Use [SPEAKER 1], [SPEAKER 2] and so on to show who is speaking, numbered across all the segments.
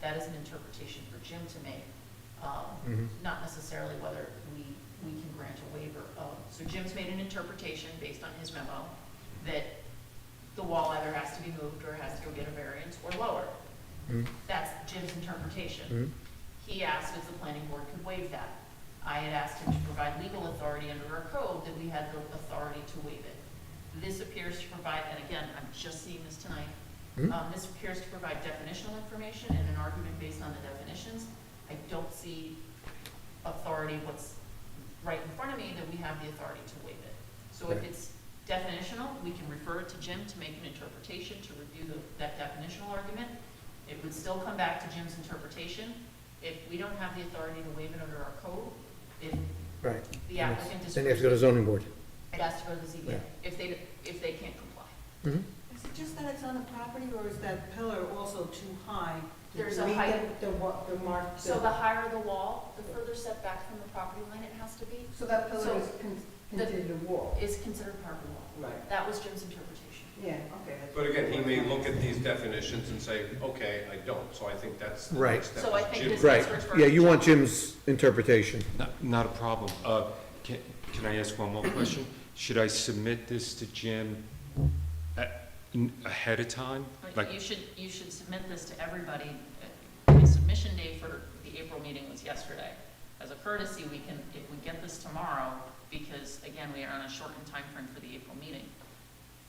[SPEAKER 1] that is an interpretation for Jim to make, um,
[SPEAKER 2] Mhm.
[SPEAKER 1] not necessarily whether we, we can grant a waiver of. So Jim's made an interpretation based on his memo that the wall either has to be moved or has to go get a variance or lower.
[SPEAKER 2] Mhm.
[SPEAKER 1] That's Jim's interpretation.
[SPEAKER 2] Mhm.
[SPEAKER 1] He asked if the planning board could waive that. I had asked him to provide legal authority under our code that we had the authority to waive it. This appears to provide, and again, I'm just seeing this tonight,
[SPEAKER 2] Mhm.
[SPEAKER 1] um, this appears to provide definitional information and an argument based on the definitions. I don't see authority, what's right in front of me, that we have the authority to waive it. So if
[SPEAKER 2] Right.
[SPEAKER 1] it's definitional, we can refer it to Jim to make an interpretation, to review the- that definitional argument. It would still come back to Jim's interpretation. If we don't have the authority to waive it under our code, if
[SPEAKER 2] Right.
[SPEAKER 1] the applicant
[SPEAKER 2] Then they
[SPEAKER 1] disagrees,
[SPEAKER 2] have to go to zoning board.
[SPEAKER 1] it has to go to the ZBA,
[SPEAKER 2] Yeah.
[SPEAKER 1] if they, if they can't comply.
[SPEAKER 2] Mhm.
[SPEAKER 3] Is it just that it's on the property, or is that pillar also too high? Did
[SPEAKER 1] There's
[SPEAKER 3] you
[SPEAKER 1] a
[SPEAKER 3] read
[SPEAKER 1] height-
[SPEAKER 3] The, the wa- the mark.
[SPEAKER 1] So the higher the wall, the further setback from the property line it has to be,
[SPEAKER 3] So that
[SPEAKER 1] so
[SPEAKER 3] pillar is con-
[SPEAKER 1] the-
[SPEAKER 3] considered a wall?
[SPEAKER 1] is considered part of the wall.
[SPEAKER 3] Right.
[SPEAKER 1] That was Jim's interpretation.
[SPEAKER 3] Yeah, okay. that's-
[SPEAKER 4] But again, he may look at these definitions and say, okay, I don't, so I think that's the
[SPEAKER 2] Right.
[SPEAKER 4] next step.
[SPEAKER 1] So I
[SPEAKER 4] is
[SPEAKER 1] think
[SPEAKER 4] Jim-
[SPEAKER 1] this-
[SPEAKER 2] Right, yeah, you want Jim's interpretation.
[SPEAKER 5] Not- Not a problem. Uh, Can can I ask one more question? Should I submit this to Jim a- n- ahead of time?
[SPEAKER 1] But
[SPEAKER 5] Like,
[SPEAKER 1] You should, you should submit this to everybody. Uh, The submission day for the April meeting was yesterday. As a courtesy, we can, if we get this tomorrow, because again, we are on a shortened time frame for the April meeting,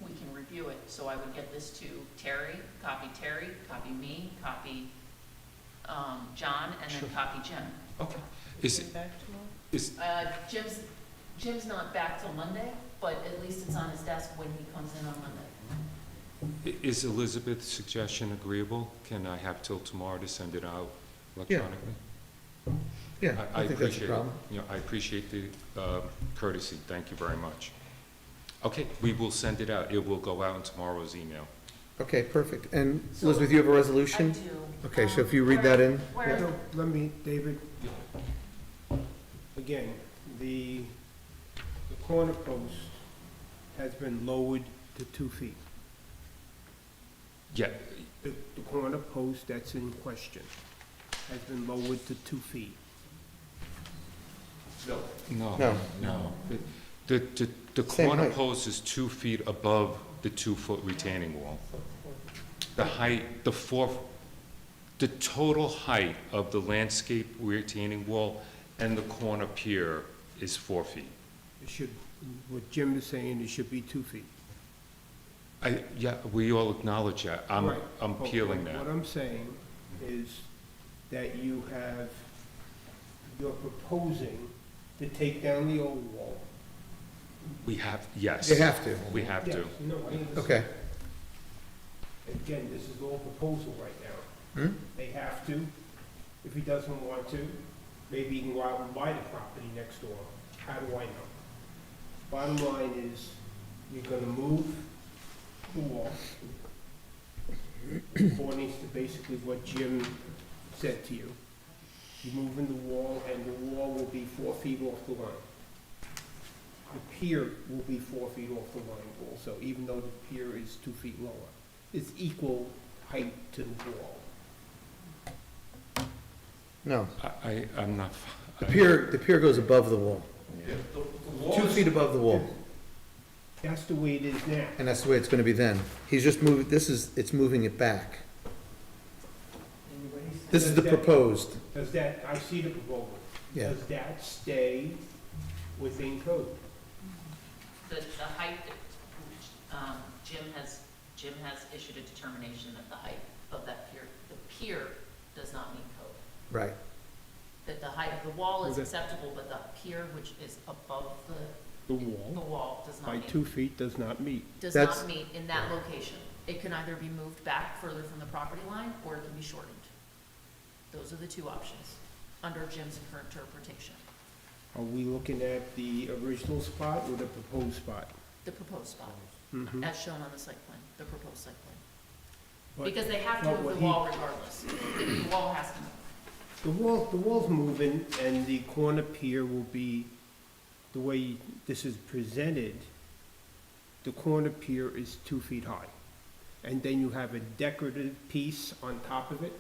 [SPEAKER 1] we can review it. So I would get this to Terry, copy Terry, copy me, copy um, John, and then
[SPEAKER 5] Sure.
[SPEAKER 1] copy Jim.
[SPEAKER 5] okay, is,
[SPEAKER 3] Back to
[SPEAKER 5] is,
[SPEAKER 1] Uh, Jim's, Jim's not back till Monday, but at least it's on his desk when he comes in on Monday.
[SPEAKER 5] is Elizabeth's suggestion agreeable? Can I have till tomorrow to send it out electronically?
[SPEAKER 2] Yeah, I think that's a
[SPEAKER 5] appreciate it.
[SPEAKER 2] problem.
[SPEAKER 5] Yeah, I appreciate the um, courtesy. Thank you very much. Okay, we will send it out. It will go out in tomorrow's email.
[SPEAKER 2] Okay, perfect. And
[SPEAKER 1] So-
[SPEAKER 2] Elizabeth, you have a
[SPEAKER 1] I
[SPEAKER 2] resolution?
[SPEAKER 1] do.
[SPEAKER 2] Okay, so
[SPEAKER 1] Um,
[SPEAKER 2] if you read that in,
[SPEAKER 1] Where, where-
[SPEAKER 6] No, Let me, David.
[SPEAKER 5] Yeah.
[SPEAKER 6] Again, the, the corner post has been lowered to two feet.
[SPEAKER 5] Yeah,
[SPEAKER 6] The, the corner post that's in question has been lowered to two feet.
[SPEAKER 4] No,
[SPEAKER 5] no.
[SPEAKER 2] No.
[SPEAKER 5] No. The, the, the
[SPEAKER 2] Same
[SPEAKER 5] corner
[SPEAKER 2] height.
[SPEAKER 5] post is two feet above the two-foot retaining wall. The height, the four, the total height of the landscape retaining wall and the corner pier is four feet.
[SPEAKER 6] It should, what Jim is saying, it should be two feet.
[SPEAKER 5] I, yeah, we all acknowledge that. I'm,
[SPEAKER 6] Right.
[SPEAKER 5] I'm
[SPEAKER 6] But
[SPEAKER 5] peeling
[SPEAKER 6] what-
[SPEAKER 5] that.
[SPEAKER 6] What I'm saying is that you have, you're proposing to take down the old wall.
[SPEAKER 5] We have, yes.
[SPEAKER 2] you have to.
[SPEAKER 5] We have to.
[SPEAKER 6] Yes, No, I understand.
[SPEAKER 2] Okay,
[SPEAKER 6] Again, this is all proposal right now.
[SPEAKER 2] Hmm?
[SPEAKER 6] They have to, if he doesn't want to, maybe he can go out and buy the property next door. How do I know? Bottom line is, you're gonna move the wall according to basically what Jim said to you. You're moving the wall, and the wall will be four feet off the line. The pier will be four feet off the line also, even though the pier is two feet lower is equal height to the wall.
[SPEAKER 2] no.
[SPEAKER 5] I, I- I'm not.
[SPEAKER 2] The pier, the pier goes above the wall,
[SPEAKER 4] the, the wall
[SPEAKER 2] two
[SPEAKER 4] is-
[SPEAKER 2] feet above the wall,
[SPEAKER 6] That's the way it is now.
[SPEAKER 2] and that's the way it's gonna be then. He's just moved, this is, it's moving it back. This is the proposed,
[SPEAKER 6] Does that, I see the proposal.
[SPEAKER 2] yeah.
[SPEAKER 6] Does that stay within code?
[SPEAKER 1] the, the height that, um, Jim has, Jim has issued a determination that the height of that pier, the pier does not meet code.
[SPEAKER 2] Right,
[SPEAKER 1] That the height of the wall is
[SPEAKER 6] Okay.
[SPEAKER 1] acceptable, but the pier, which is above the,
[SPEAKER 6] The
[SPEAKER 1] the
[SPEAKER 6] wall
[SPEAKER 1] wall, does not
[SPEAKER 6] by
[SPEAKER 1] meet,
[SPEAKER 6] two feet does not meet.
[SPEAKER 1] does
[SPEAKER 2] That's-
[SPEAKER 1] not meet in that location. It can either be moved back further from the property line, or it can be shortened. Those are the two options, under Jim's current interpretation,
[SPEAKER 6] Are we looking at the original spot or the proposed spot?
[SPEAKER 1] the proposed spot,
[SPEAKER 6] Mhm.
[SPEAKER 1] as shown on the site plan, the proposed site plan.
[SPEAKER 6] But
[SPEAKER 1] Because they have to
[SPEAKER 6] But
[SPEAKER 1] move
[SPEAKER 6] what
[SPEAKER 1] the
[SPEAKER 6] he-
[SPEAKER 1] wall regardless. The wall has to move.
[SPEAKER 6] The wall, the wall's moving and the corner pier will be, the way this is presented, the corner pier is two feet high. And then you have a decorative piece on top of it